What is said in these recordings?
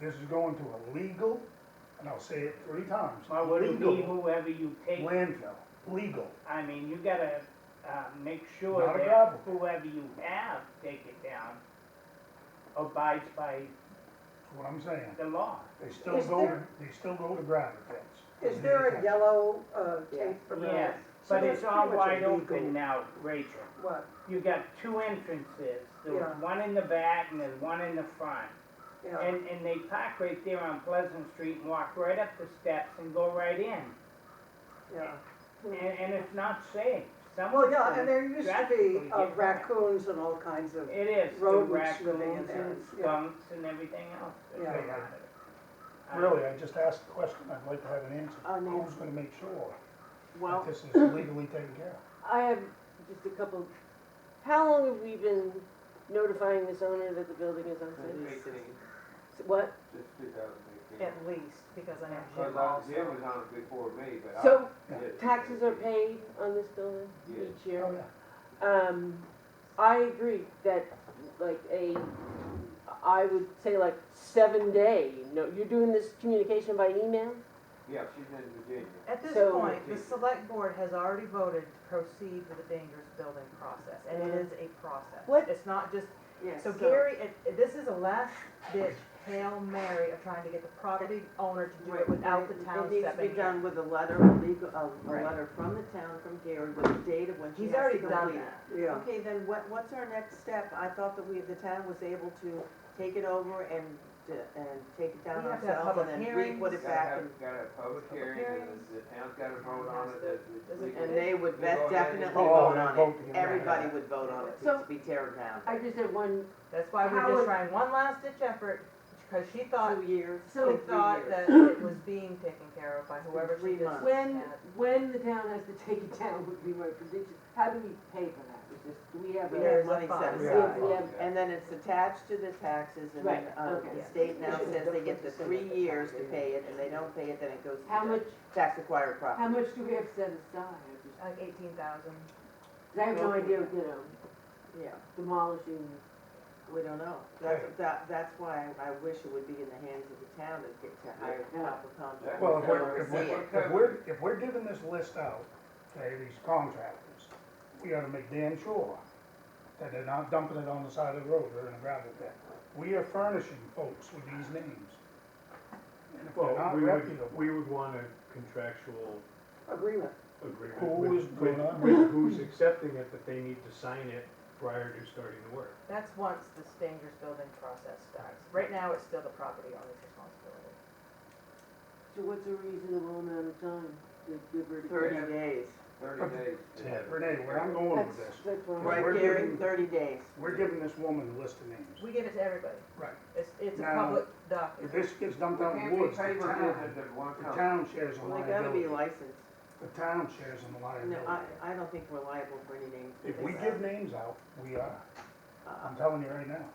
This is going to a legal, and I'll say it three times, Well, not would it be legal whoever you take, landfill, legal. I mean, you gotta, uh, make sure Not a that problem. whoever you have take it down abides by That's what I'm saying. the law. They still Is go, to- there- they still go to gravel pits. Is there a yellow, uh, Yeah. tape around? Yes, So but that's it's all pretty much wide illegal. open now, Rachel. What, You got two entrances, there's Yeah. one in the back and there's one in the front. yeah, And, and they park right there on Pleasant Street and walk right up the steps and go right in. yeah. And, and it's not safe. Well, Someone's yeah, gonna- and there used to drastically be uh, get raccoons and all kinds of, It is, the road was swimming in raccoons there, and yeah. skunks and everything else. that Yeah. go out there. Really, I just asked the question, I'd like to have an answer. I know. Who's gonna make sure that Well, this is legally taken care of? I have just a couple, how long have we been notifying this owner that the building is unsafe? What? Just two thousand eighteen. At least, because I know Cause Jim I, also. Jim was on it before me, but I. So Yeah. taxes are paid on this building Yes. each year? Oh, yeah. Um, I agree that like a, I would say like seven day, no, you're doing this communication by email? Yeah, she's in Virginia. At this So- point, the select board has already voted to proceed with the dangerous building process, and it is a process. What- It's not just, Yes. so Gary, it- it- this is a last ditch Hail Mary of trying to get the property owner to do it without the town It needs to stepping be in. done with a letter, a legal, a, a Right. letter from the town, from Gary, with the date of when she He's has to already complete. done that. yeah. Okay, then what, what's our next step? I thought that we, the town was able to take it over and, d- and take it down We have to have ourselves and public then we put hearings. it Gotta back have, and, gotta have public hearings, and the town's gotta vote on it, that it's Does it- legal. and they would We go vet- ahead and definitely vote. vote Oh, on vote to it. get rid of Everybody it. would vote on it, So- to be tear down. I just had one, That's why we're How just would- trying one last ditch effort, because she thought, Two years, she two, three years. thought that it was being taken care of by whoever she Three just months. when, had. when the town has to take it down would be my prediction. How do we pay for that? Is this, do we have a? We have There's a money set fund. Yeah. aside. We have- And then it's attached to the taxes and then, Right, uh, okay. the state now says they get the Yeah. three years to pay it and they don't pay it, then it goes How to much, the tax acquired how property. much do we have set aside? I just- Like eighteen thousand. 'cause I have no idea, you know, Yeah, demolishing we don't know. That's, that, that's why I wish it would be in the hands of the town to get to hire Yeah. proper contractors. Well, if that we're, if oversee it. we're, if we're, if we're giving this list out, okay, these contractors, we ought to make damn sure that they're not dumping it on the side of the road or in a gravel pit. We are furnishing folks with these names. And if they're Well, not we would, reputable, we would want a contractual Agreement. agreement. Who with- is with- gonna- With who's accepting it, that they need to sign it prior to starting the work. That's once this dangerous building process starts. Right now, it's still the property owner's responsibility. So what's a reasonable amount of time to give her to? Thirty days, Thirty days. To have it. Renee, where I'm going That's, with this, that's what I'm. Right. right, we're Gary, giving- thirty days. we're giving this woman a list of names. We give it to everybody. Right. It's, it's a Now, public If document. this gets dumped out in Can't the be woods, the paid for town, business at one the time. town shares a Well, they gotta liability. be licensed. The town shares a liability. No, I, I don't think we're liable for any names. If we give names out, we are. Uh, I'm telling you right now.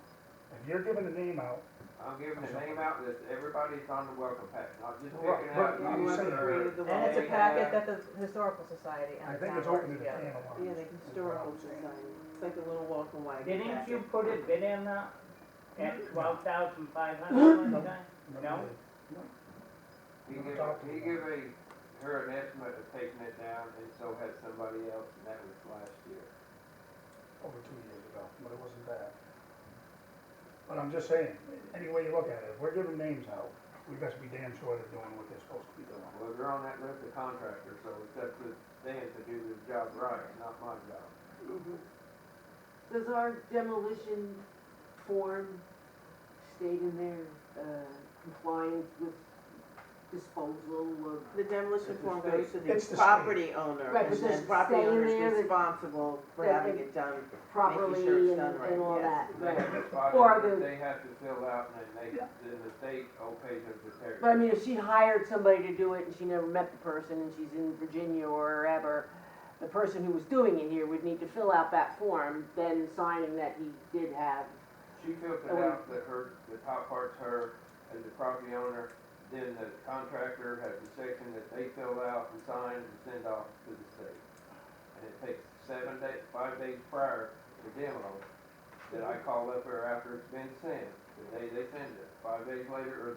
If you're giving a name out, I'm giving the name out, list, everybody's on the welcome pack, not just Right, picking right, out. I'm you saying- or- Created the And it's a law. packet that the Historical Society I and the think town it's work open to the together. can of worms. Yeah, the is what I'm historical saying. society, it's like a little walking wagon. Didn't you packet. put a bid in uh, Mm. at twelve thousand five hundred one time? No? He give, he give a, her an estimate of taking it down, and so had somebody else, and that was last year. Over two years ago, but it wasn't bad. But I'm just saying, any way you look at it, if we're giving names out, we best be damn sure they're doing what they're supposed to be doing. Well, they're on that list of contractors, so it's up to them to do their job right, not my job. Mhm. Does our demolition form state in there, uh, compliance with disposal of? The demolition form goes to It's the the property owner, Right, and but does then it property say in owner there is that- responsible for that having it- it done. Properly sure it's and, done right, and all that, yes. They right. have a spot Or that the- they have to fill out, and then they, then the state okays it to tear. But I mean, if she hired somebody to do it and she never met the person and she's in Virginia or wherever, the person who was doing it here would need to fill out that form, then signing that he did have. She filled Oh. it out, that her, the top part's her, as the property owner, then the contractor has a section that they fill out and sign and send off to the state. And it takes seven days, five days prior to demo, that I call up there after it's been sent, the day they send it, five days later or